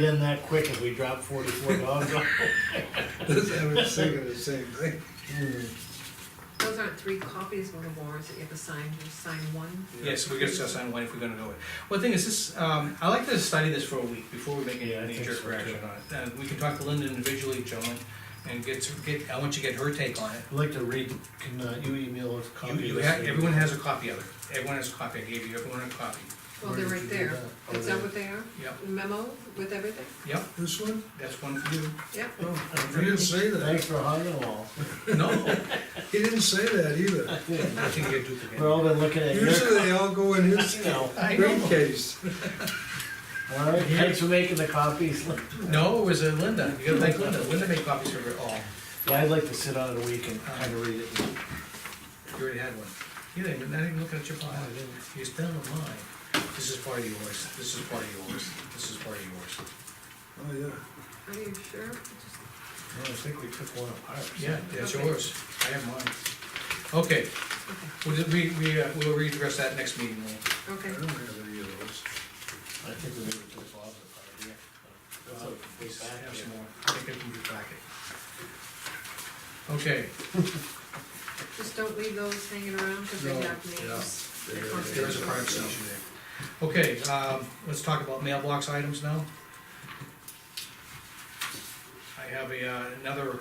Get in that quick if we drop forty-four dogs off. I was thinking the same thing. Those aren't three copies of the warrants that you have to sign, you just sign one. Yes, we could discuss on one if we're gonna go it. Well, the thing is, this, um, I like to study this for a week before we make Yeah, I any think major so, too. correction on it. And we can talk to Linda individually, gentlemen, and get, some- get, I want you to get her take on it. I'd like to read, can uh, you email us a You, copy? of you this have, thing? everyone has a copy of it. Everyone has a copy. I gave you everyone a copy. Well, Where they're did right you do there. that? Is that what they are? Yep, Memo with everything? yep, This one? that's one for you. Yep. Oh, He didn't say Thanks that. for hogging them all. No, He didn't say that either. I think you get We're duplicated. all been looking at your Usually they all go in his email. I know. briefcase. All right, thanks for making the copies. No, it was uh, Linda. You gotta thank Linda. Linda made copies for it all. Yeah, I'd like to sit on it a week and kind of read it. You already had one. You didn't, even- not even looking at your file. You still have mine. This is part of yours, this is part of yours, this is part of yours. Oh, yeah. Are you sure? Just- No, I think we took one apart. Yeah, that's Okay. yours. I have mine. Okay, okay. we'll, just- we, we, uh, we'll readdress that next meeting. Lou. I Okay, don't have any of those. I think we maybe took Bob's apart, yeah. Uh, Way I back here. have some more. I think it can be packet. Okay, just don't leave those hanging around because they No, have names. They They're are- they there is a confidential. privacy issue there. Okay, um, let's talk about mailbox items now. I have a, uh, another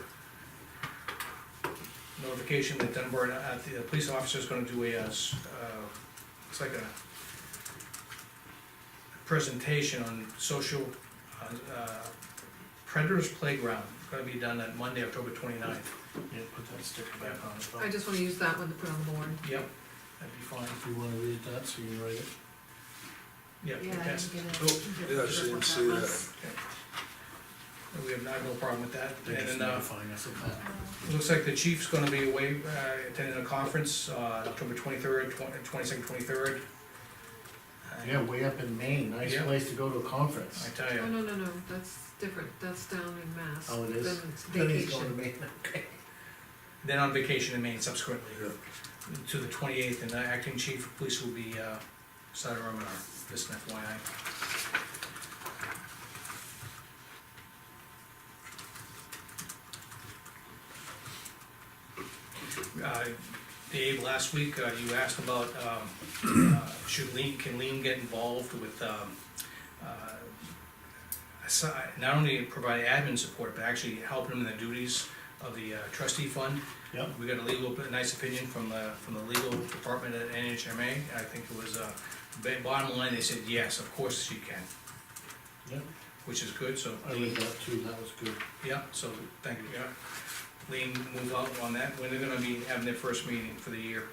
notification that Dunbar, uh, the police officer's gonna do a, uh, s- uh, it's like a presentation on social, uh, uh, predators playground, gonna be done on Monday, October 29th. Yeah, put that sticker back on as well. I just wanna use that one to put on the warrant. Yep, that'd be fine, If you wanna read that, so you can write it. yep, Yeah, I that's, didn't get it. Oh, yeah, I didn't see that. we have, I have no problem with that. They're just And, uh, notifying us of that. It Looks like the chief's gonna be away, uh, attending a conference, uh, October twenty-third, twenty-second, twenty-third. Yeah, way up in Maine, nice Yeah. place to go to a I conference. tell Oh, you, no, no, no, that's different, that's down in Mass. Oh, it is? Then it's Then he's going to vacation. Maine, okay. then on vacation in Maine subsequently, Yeah. to the twenty-eighth, and the acting chief of police will be, uh, Sudar Romanar, just an FYI. Uh, Dave, last week, uh, you asked about, um, uh, should lean, can lean get involved with, um, uh, aside, not only provide admin support, but actually helping them in the duties of the uh, trustee fund. Yep. We got a legal, a nice opinion from the, from the legal department at NHMA, I think it was, uh, ba- bottom line, they said, yes, of course she can, Yeah, which is good, so. I read that too, that was good. Yeah, so, thank you, yeah. Lean, move out on that, when they're gonna be having their first meeting for the year.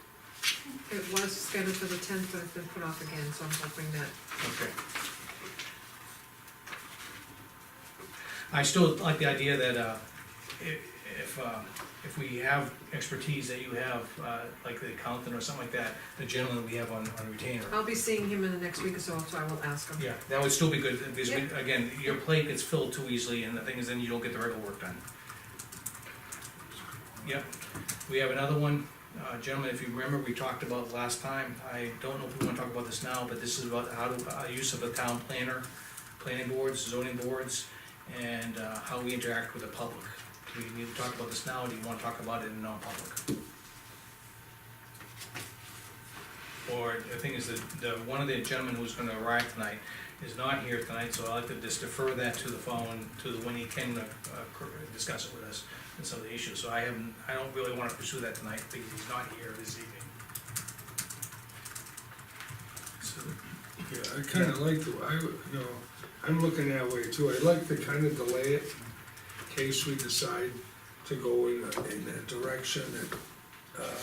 It was scheduled for the tenth, but it's been put off again, so I'm hoping that Okay. I still like the idea that, uh, i- if, uh, if we have expertise that you have, uh, like the accountant or something like that, the gentleman we have on, on retainer. I'll be seeing him in the next week or so, so I will ask him. Yeah, that would still be good, because we- again, your plate gets filled too easily, and the thing is, then you don't get the regular work done. Yep, we have another one, uh, gentlemen, if you remember, we talked about last time, I don't know if we wanna talk about this now, but this is about how to, uh, use of the town planner, planning boards, zoning boards, and, uh, how we interact with the public. Do we need to talk about this now, or do you wanna talk about it in non-public? Or, the thing is, that the, one of the gentlemen who's gonna arrive tonight is not here tonight, so I'd like to just defer that to the following, to when he can, uh, cor- discuss it with us and some of the issues, so I haven't, I don't really wanna pursue that tonight, because he's not here this evening. So, Yeah, I kinda like the, I, would- you know, I'm looking that way too. I like to kinda delay it in case we decide to go in, a- in a direction that, uh,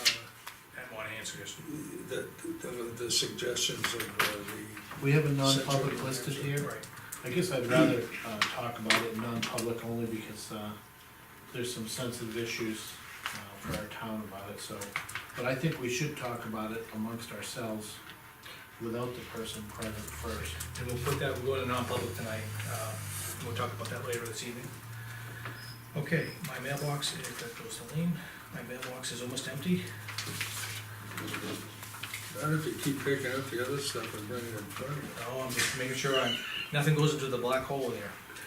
I wanna answer this. that, the, the suggestions of uh, the, We have a Central non-public New listed Hampshire. here. Right, I guess I'd rather, uh, talk about it in non-public only because, uh, there's some sensitive issues, uh, for our town about it, so. But I think we should talk about it amongst ourselves without the person present first. and we'll put that, we'll go to non-public tonight, uh, we'll talk about that later this evening. Okay, my mailbox, if that goes to Lean, my mailbox is almost empty. not if you keep picking up the other stuff and bringing it in front of you. No, I'm Oh, just making sure I'm, nothing goes into the black hole there.